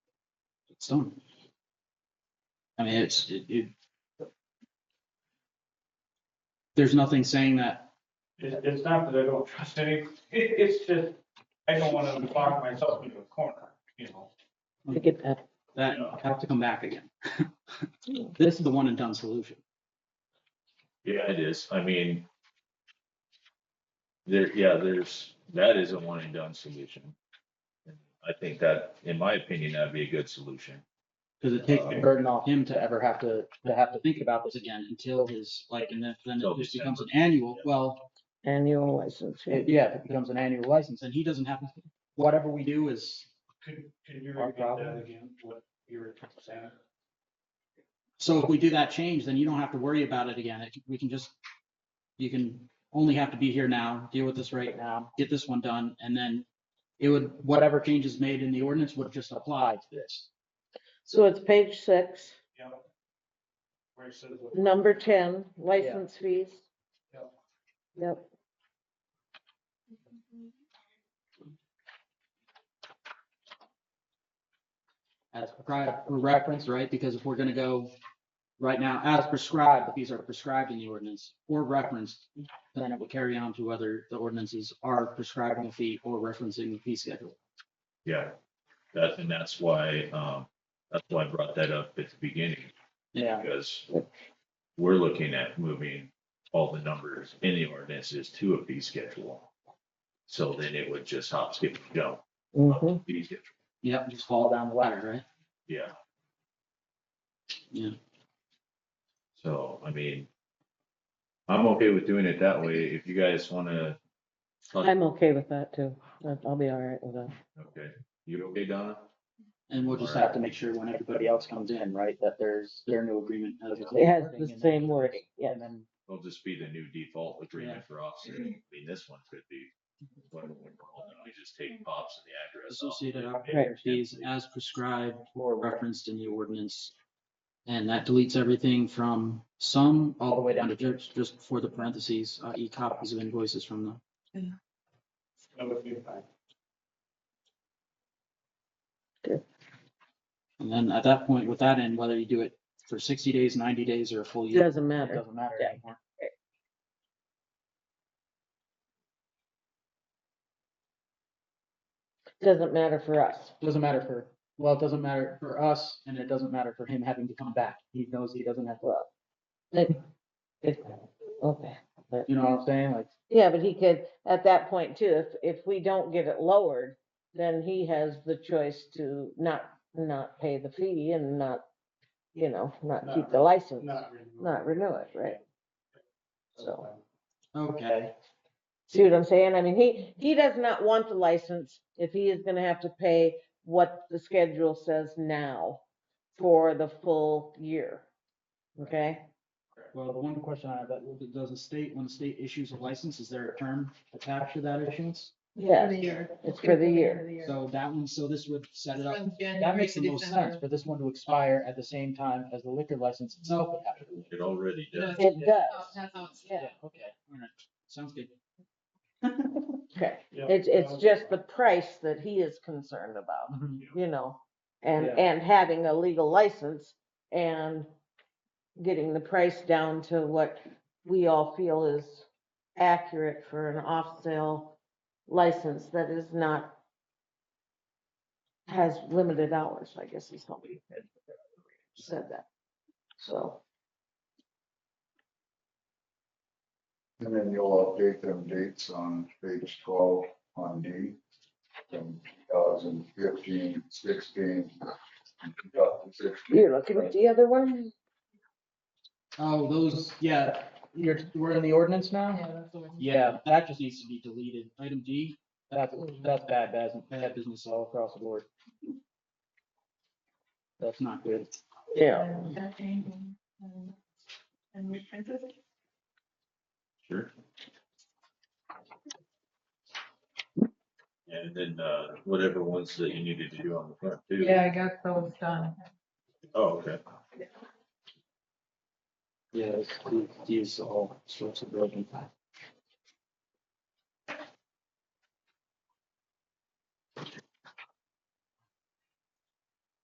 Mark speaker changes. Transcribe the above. Speaker 1: It's done. I mean, it's, it, it. There's nothing saying that,
Speaker 2: It's, it's not that I don't trust any, it, it's just, I don't wanna lock myself into a corner, you know?
Speaker 3: I get that.
Speaker 1: that I have to come back again. This is the one and done solution.
Speaker 4: Yeah, it is. I mean. There, yeah, there's, that is a one and done solution. I think that, in my opinion, that'd be a good solution.
Speaker 1: Cause it takes the
Speaker 4: Uh,
Speaker 1: burden off him to ever have to, to have to think about this again until his, like, and then, then it
Speaker 4: Till
Speaker 1: just becomes an
Speaker 4: December.
Speaker 1: annual, well,
Speaker 3: Annual license.
Speaker 1: it- yeah, it becomes an annual license and he doesn't have, to- whatever we do is.
Speaker 2: Could, could you
Speaker 1: Our
Speaker 2: repeat
Speaker 1: problem.
Speaker 2: that again, what you were saying?
Speaker 1: So if we do that change, then you don't have to worry about it again. It- We can just, you can only have to be here now, deal with this right now, get this one done, and then it would, whatever changes made in the ordinance would just apply to this.
Speaker 3: So it's page six,
Speaker 2: Yeah. Where it says what-
Speaker 3: number ten, license fees.
Speaker 2: Yep.
Speaker 3: Yep.
Speaker 1: As prescribed, for reference, right? Because if we're gonna go right now, as prescribed, the fees are prescribed in the ordinance or referenced, then it would carry on to whether the ordinances are prescribing the fee or referencing the fee schedule.
Speaker 4: Yeah, that, and that's why, um, that's why I brought that up at the beginning,
Speaker 1: Yeah.
Speaker 4: because we're looking at moving all the numbers in the ordinances to a fee schedule. So then it would just hop, skip, and jump. up
Speaker 3: Mhm.
Speaker 4: to fee schedule.
Speaker 1: Yep, just fall down the ladder, right?
Speaker 4: Yeah.
Speaker 1: Yeah.
Speaker 4: So, I mean, I'm okay with doing it that way. If you guys wanna.
Speaker 3: I'm okay with that too. I'll I'll be all right with that.
Speaker 4: Okay, you okay, Donna?
Speaker 1: And we'll just have to make sure when everybody else comes in, right, that there's, their new agreement. has the same
Speaker 3: It has
Speaker 1: wording
Speaker 3: the
Speaker 1: and-
Speaker 3: same wording, yeah.
Speaker 1: And then,
Speaker 4: It'll just be the new default
Speaker 1: Yeah.
Speaker 4: agreement for officers. I mean, this one could be. what we want. We just take pops and the address off.
Speaker 1: associated operator fees as prescribed or referenced in the ordinance. And that deletes everything from sum all the way down to just, just before the parentheses, i.e. copies of invoices from the
Speaker 2: that would be fine.
Speaker 1: And then at that point, with that in, whether you do it for sixty days, ninety days, or a full
Speaker 3: It
Speaker 1: year,
Speaker 3: doesn't
Speaker 1: it
Speaker 3: matter.
Speaker 1: doesn't matter
Speaker 3: Yeah.
Speaker 1: anymore.
Speaker 3: Doesn't matter for us.
Speaker 1: Doesn't matter for, well, it doesn't matter for us, and it doesn't matter for him having to come back. He knows he doesn't have to,
Speaker 3: It- Okay.
Speaker 1: you know what I'm saying? Like,
Speaker 3: Yeah, but he could, at that point too, if, if we don't get it lowered, then he has the choice to not, not pay the fee and not, you know, not keep the license,
Speaker 2: Not really.
Speaker 3: not renew it, right? So.
Speaker 1: okay.
Speaker 3: See what I'm saying? I mean, he, he does not want the license if he is gonna have to pay what the schedule says now for the full year. Okay?
Speaker 1: Well, the one question I have, that, does the state, when the state issues a license, is there a term attached to that issuance?
Speaker 5: For
Speaker 3: Yeah,
Speaker 5: the year.
Speaker 3: It's for the year.
Speaker 1: So that one, so this would set it up,
Speaker 5: From January
Speaker 1: that makes
Speaker 5: to
Speaker 1: the most sense
Speaker 5: December.
Speaker 1: for this one to expire at the same time as the liquor license itself would have to.
Speaker 4: It already does.
Speaker 3: it
Speaker 5: Oh,
Speaker 3: does.
Speaker 5: that's how it's-
Speaker 3: Yeah,
Speaker 1: okay. All right, sounds good.
Speaker 3: okay.
Speaker 2: Yeah.
Speaker 3: It's, it's just the price that he is concerned about, you know? And,
Speaker 1: Yeah.
Speaker 3: and having a legal license and getting the price down to what we all feel is accurate for an off-sale license that is not, has limited hours, I guess is how we had said that. So,
Speaker 6: And then you'll update them dates on page twelve on D, from 2015, 16, 2016.
Speaker 3: you're looking at the other one?
Speaker 1: Oh, those, yeah, you're, we're in the ordinance now?
Speaker 5: Yeah, that's the one.
Speaker 1: Yeah, that just needs to be deleted. Item D, that's, that's bad, bad, bad business all across the board. That's not good.
Speaker 3: Yeah.
Speaker 5: And that thing, and- and we printed it.
Speaker 4: Sure. And then, uh, whatever ones that you needed to do on the front too.
Speaker 5: Yeah, I got those done.
Speaker 4: Oh, okay.
Speaker 1: Yeah, these all sorts of broken.